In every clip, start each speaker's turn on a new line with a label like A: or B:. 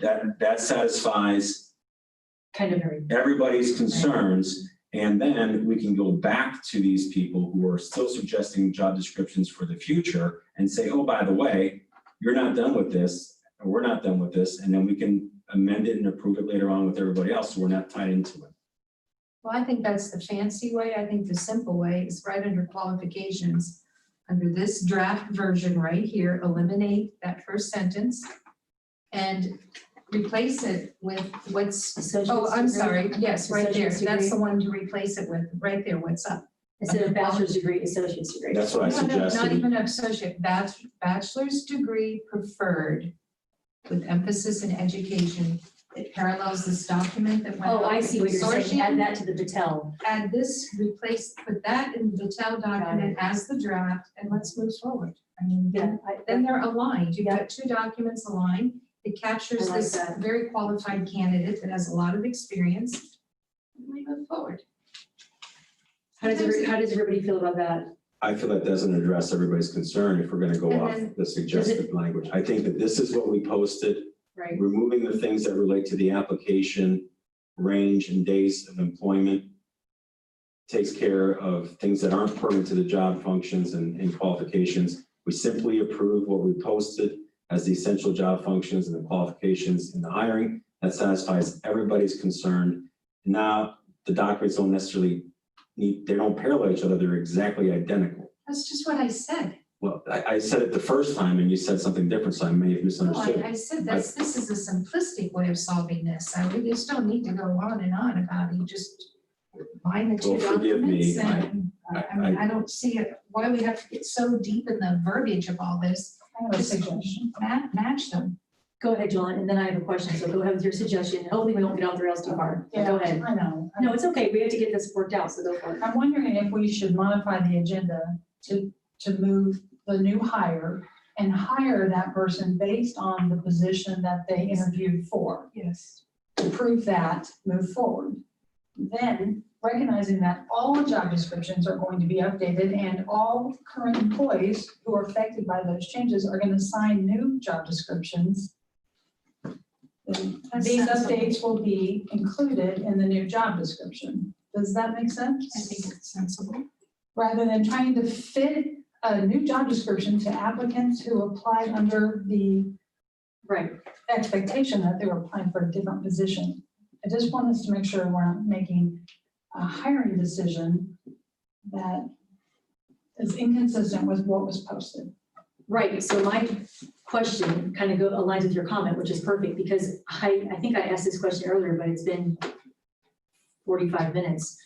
A: That, that satisfies
B: Kind of very.
A: everybody's concerns. And then we can go back to these people who are still suggesting job descriptions for the future and say, oh, by the way, you're not done with this, or we're not done with this, and then we can amend it and approve it later on with everybody else, so we're not tied into it.
B: Well, I think that's the fancy way. I think the simple way is right under qualifications. Under this draft version right here, eliminate that first sentence and replace it with what's, oh, I'm sorry, yes, right there.
C: Associate's degree.
B: That's the one to replace it with, right there, what's up.
C: Instead of bachelor's degree, associate's degree.
A: That's what I
B: No, no, Not
A: suggested.
B: even associate, bach- bachelor's degree preferred with emphasis in education. It parallels this document that went.
C: Oh,
B: out
C: I
B: with
C: see what you're saying.
B: consortium.
C: Add that to the Patel.
B: add this, replace, put that in the TEL document as the draft, and let's move forward. I mean, then,
C: I-
B: then they're aligned, you've got two documents aligned, it captures
C: I like
B: this
C: that.
B: very qualified candidate that has a lot of experience. And We move forward.
C: How does, every- how does everybody feel about that?
A: I feel that doesn't address everybody's concern if we're gonna go
B: And
A: off
B: then-
A: the suggested language. I think that this is what we posted.
C: Right.
A: removing the things that relate to the application, range and days of employment. Takes care of things that aren't pertinent to the job functions and, and qualifications. We simply approve what we posted as the essential job functions and the qualifications in the hiring. That satisfies everybody's concern. Now, the documents don't necessarily need, they don't parallel each other. They're exactly identical.
B: That's just what I said.
A: Well, I, I said it the first time and you said something different, so I may have
B: No,
A: misunderstood.
B: Oh, I, I said this, this is a simplistic way of solving this. I, we just don't need to go on and on about it, You just line the two
A: Well, forgive me,
B: documents and,
A: I-
B: uh, I mean, I don't see it, why we have to get so deep in the verbiage of all this.
D: I have a suggestion.
B: Match, match them.
C: Go ahead, John, and then I have a question, so go ahead with your suggestion. Hopefully, we won't get off the rails too hard. So Go ahead.
D: I know.
C: No, it's okay. We have to get this worked out, so go for it.
D: I'm wondering if we should modify the agenda to, to move the new hire and hire that person based on the position that they interviewed for.
B: Yes.
D: To prove that, move forward. Then recognizing that all the job descriptions are going to be updated and all current employees who are affected by those changes are going to sign new job descriptions. These updates will be included in the new job description. Does that make sense?
B: I think it's sensible.
D: rather than trying to fit a new job description to applicants who applied under the
C: Right.
D: expectation that they were applying for a different position. I just want us to make sure we're not making a hiring decision that is inconsistent with what was posted.
C: Right, so my question kind of go, aligns with your comment, which is perfect, because I, I think I asked this question earlier, but it's been forty-five minutes.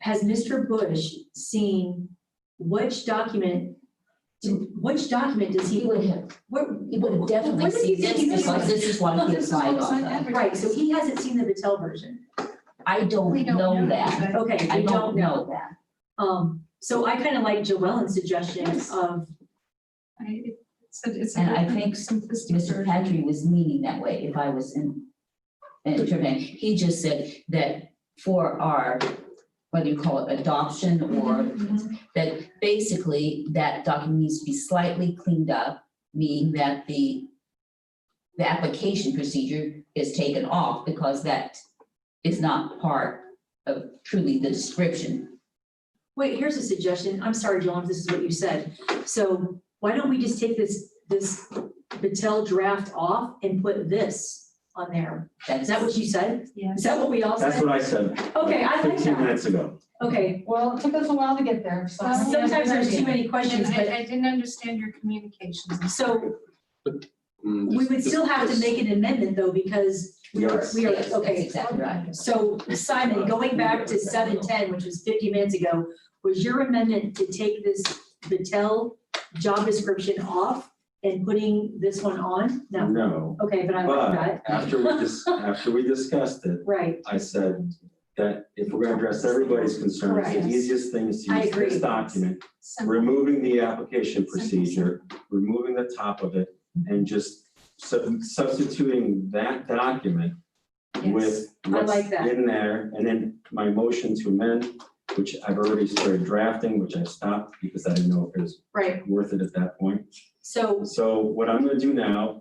C: Has Mr. Bush seen which document, which document does he,
E: He would have,
C: what?
E: he would have definitely
C: what does he
E: seen this,
C: think he
E: because
C: missed?
E: this is what he applied on.
C: Right, so he hasn't seen the Patel version.
E: I
B: We
E: don't
B: don't know
E: know that.
C: Okay,
E: I
C: we
E: don't know that.
C: Um, so I kind of like Joellen's suggestion
B: Yes.
C: of,
B: I, it's, a- it's. a
E: And I
B: very
E: think
B: simplistic
E: Mr.
B: version.
E: Patry was meaning that way if I was in, in Trinidad. He just said that for our, whether you call it adoption or that basically that document needs to be slightly cleaned up, meaning that the the application procedure is taken off because that is not part of truly the description.
C: Wait, here's a suggestion. I'm sorry, Joel, if this is what you said. So why don't we just take this, this Patel draft off and put this on there? Is that what you said?
B: Yes.
C: Is that what we all
A: That's
C: said?
A: what I said.
C: Okay, I like
A: Fifteen
C: that.
A: minutes ago.
C: Okay,
D: Well, it took us a while to get there, so.
B: Well,
C: Uh, sometimes there's too many
B: And
C: questions,
B: I,
C: but
B: I didn't understand your communications.
C: so
F: Mm,
C: we
F: this-
C: would
F: this-
C: still have to
F: this-
C: make an amendment though, because we are,
A: Yes.
C: we are,
E: Yes, That's
C: okay.
E: exactly right.
C: So Simon, going back to seven ten, which was fifty minutes ago, was your amendment to take this Patel job description off and putting this one on? No,
A: No.
C: okay, but I like
A: Mm-hmm. But
C: that,
A: after we dis after we discussed it,
C: right,
A: I said that if we're gonna address everybody's concerns,
C: Correct.
A: the easiest thing is to
C: I
A: use this
C: agree.
A: document,
B: Simple.
A: removing the application
B: Simple.
A: procedure, removing the top of it, and just sub- substituting that document with
C: I
A: what's
C: like that.
A: in there, and then my motion to amend, which I've already started drafting, which I stopped because I didn't know if it was
C: right.
A: worth it at that point.
C: So,
A: So what I'm gonna do now